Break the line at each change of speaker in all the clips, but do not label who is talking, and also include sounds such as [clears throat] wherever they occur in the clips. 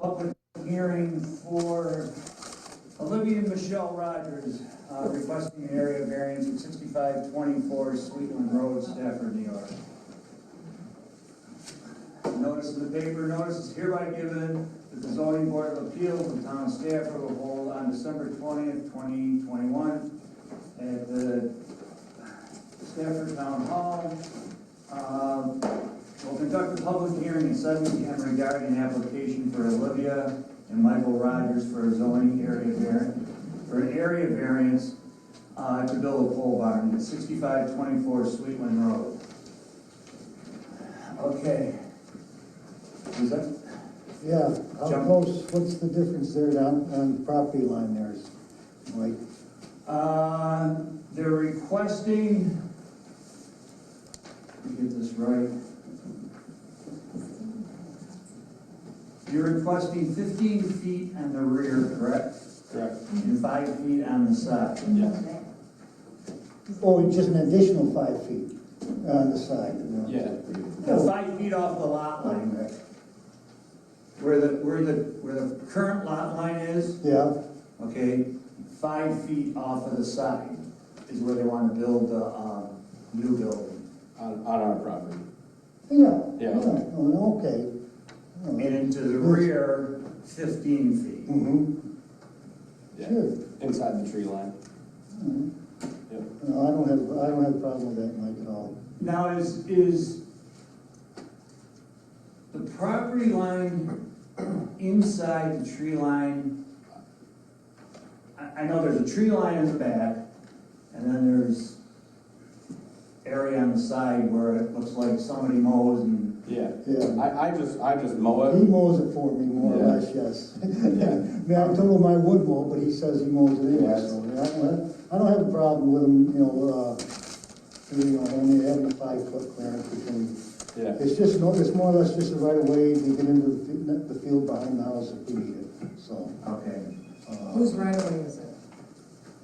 public hearing for Olivia Michelle Rogers, uh, requesting an area variance at sixty-five twenty-four Sweetland Road, Stafford, New York. Notice in the paper, notice is hereby given that the zoning board of appeals of the town of Stafford will hold on December twentieth, twenty twenty-one at the Stafford Town Hall. Uh, Will conduct a public hearing at seven P M regarding an application for Olivia and Michael Rogers for a zoning area variance, for an area variance, uh, to build a pole barn at sixty-five twenty-four Sweetland Road. Okay. Is that,
Yeah, how
Jump.
close, what's the difference there down on the property line there is, like,
uh, they're requesting, let me get this right. You're requesting fifteen feet on the rear, correct?
Correct.
and five feet on the side.
Yeah.
oh, just an additional five feet on the side? you know?
Yeah.
The Five feet off the lot line, Rick. Where the, where the, where the current lot line is,
Yeah,
okay, five feet off of the side is where they want to build the, um, new building.
On, on our property.
yeah.
Yeah.
Oh, Okay. Oh,
And into the rear, fifteen feet.
Mm-hmm,
Yeah.
sure.
Inside the tree line.
Mhm.
Yep.
No, I don't have, I don't have a problem with that, Mike, at all.
Now, is, is the property line inside the tree line? I, I know there's a tree line in the back, and then there's area on the side where it looks like somebody mows and,
Yeah.
Yeah.
I, I just, I just mow
He mows it for me, more or
Yeah.
less, yes. I [laughs]
Yeah.
mean, I told him I would mow, but he says he mows it anyway,
Yes.
so, yeah, I don't- I don't have a problem with him, you know, uh, you know, only having a five-foot clearance between
it. Yeah.
It's just, no, it's more or less just the right of way to get into the fi- the field behind the house if we need it, so.
okay,
uh,
Whose right of way is it?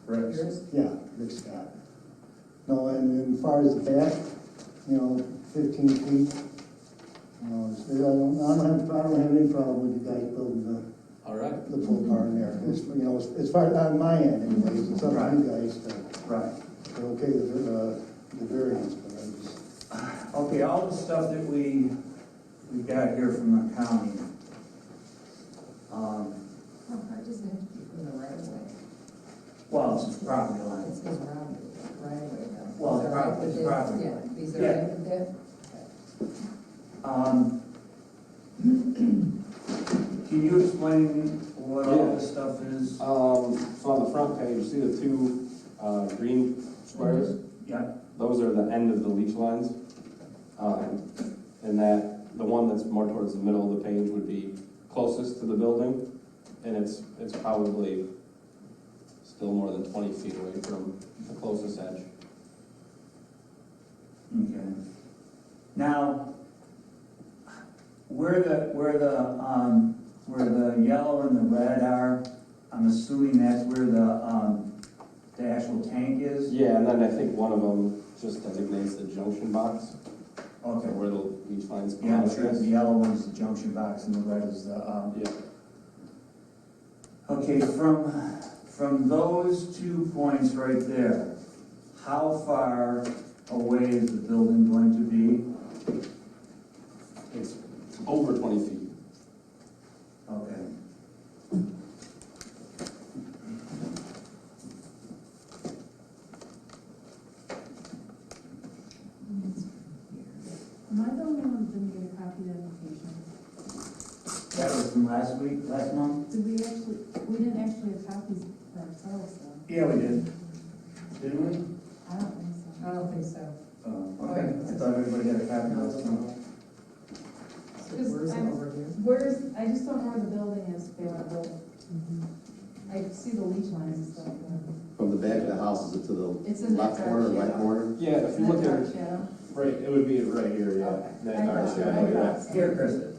Rick's.
Yours?
Yeah, Rick Scott. No, and and as far as the back, you know, fifteen feet, you know, it's- I don't, I don't have, I don't have any problem with the guy building
All right.
the, the pole barn there. It's, you know, as- as far, on my end anyways, it's up to you guys to,
right.
to okay the, uh, the variance, but I just.
Okay, all the stuff that we, we got here from the county. Um,
How far does it Oh, have to be from the right of way?
well, it's the property line.
It's his round, right of way though.
Well,
Is there
prop-
right
it's
there?
property.
Yeah, is
Yeah.
there right of there?
Um, [clears throat] Can you explain what all this stuff is?
Um, so on the front page, see the two, uh, green squares?
Yeah,
Those are the end of the leach lines. Um, and that, the one that's more towards the middle of the page would be closest to the building. And it's, it's probably still more than twenty feet away from the closest edge.
okay. Now, where the, where the, um, where the yellow and the red are, I'm assuming that's where the, um, the actual tank is?
Yeah, and then I think one of them just designates the junction box,
Okay,
where the leach lines come
yeah,
out,
I'm
I
sure the
guess.
yellow one's the junction box and the red is the, um,
Yeah,
okay, from, from those two points right there, how far away is the building going to be?
it's over twenty feet.
Okay.
Am I the only one who didn't get a copy of the application?
That was from last week, last month?
Did we actually, we didn't actually have copies for ourselves, though.
Yeah, we did. Didn't we?
I don't think so.
I don't think so.
Oh, okay. I thought everybody had a copy last month.
So where's it over here?
Where's, I just don't know where the building is, if they want to build. I see the leach lines and stuff. but
From the back of the house, is it to the
It's in that
left corner,
dark
right
shadow.
corner?
Yeah, if
It's
you
in
look
that
at,
dark shadow.
right, it would be right here, yeah.
Okay.
That
I
dark
thought-
shadow,
I
you're right.
thought so.
Here, Chris.